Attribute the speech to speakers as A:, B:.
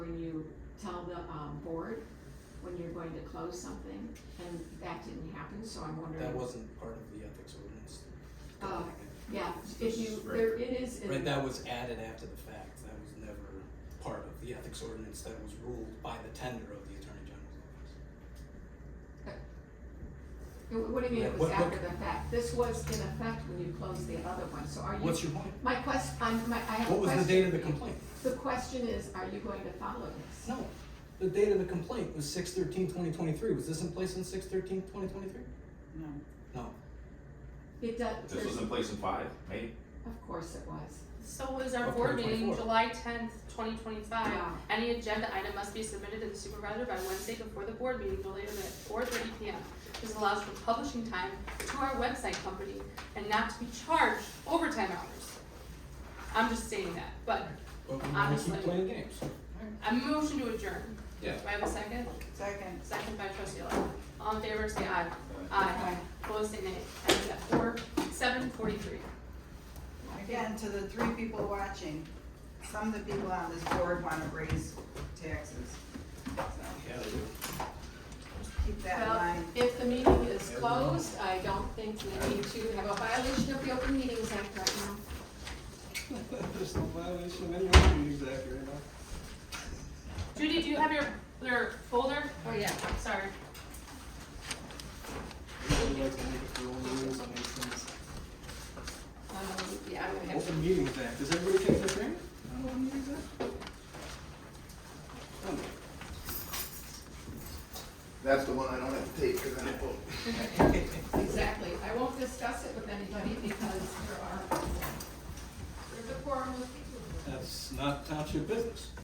A: tell the, um, board when you're going to close something, and that didn't happen, so I'm wondering.
B: That wasn't part of the ethics ordinance.
A: Uh, Yeah, if you,
C: Right.
A: there, it is in.
B: Right, that was added after the fact, that was never part of the ethics ordinance that was ruled by the tender of the Attorney
A: What
B: General's
A: what do you mean it
B: Yeah,
A: was
B: what- what-
A: after the fact? This was in effect when you closed the other one, so are
B: office.
A: you?
B: What's your point?
A: My quest, I'm, my, I have a
B: What was the date of the
A: question.
B: complaint?
A: The question is, are you going to follow this?
B: No, the date of the complaint was six thirteen twenty twenty-three, was this in place in six thirteen twenty twenty-three?
D: No.
B: No,
A: It does,
C: This was
A: there's-
C: in place in five, May.
A: of course it was.
E: So was our
B: Of
E: board meeting
B: 2024.
E: July tenth, twenty twenty-five.
A: Yeah.
E: Any agenda item must be submitted to the supervisor by Wednesday before the board meeting, no later than four thirty P M. This allows for publishing time to our website company and not to be charged overtime hours. I'm just saying that, but
B: but we wanna keep
E: Honestly.
B: playing games.
E: I motion to adjourn.
B: Yeah.
E: Do I have a second?
D: Second.
E: Second by trustee Lau. All in favor, say aye. Aye. Opposed, say nay. And it's at four, seven forty-three.
D: Again, to the three people watching, some of the people on this board wanna raise taxes, so
B: Yeah, they do.
D: keep that in
A: Well,
D: mind.
A: if the meeting is closed, I don't think we need to have a violation of the Open Meetings Act right now.
F: There's no violation of any other meetings act right now.
E: Judy, do you have your, your folder?
A: Oh, yeah.
E: Sorry.
F: I'd like to make a few own rules on these things.
A: Um, yeah, I don't have.
F: Open meetings act, does everybody think they're great? On Open meetings act? Oh,
G: That's the one I don't have to take because I don't vote.
A: Exactly, I won't discuss it with anybody because there are, there's a quorum of people.
F: That's not township business.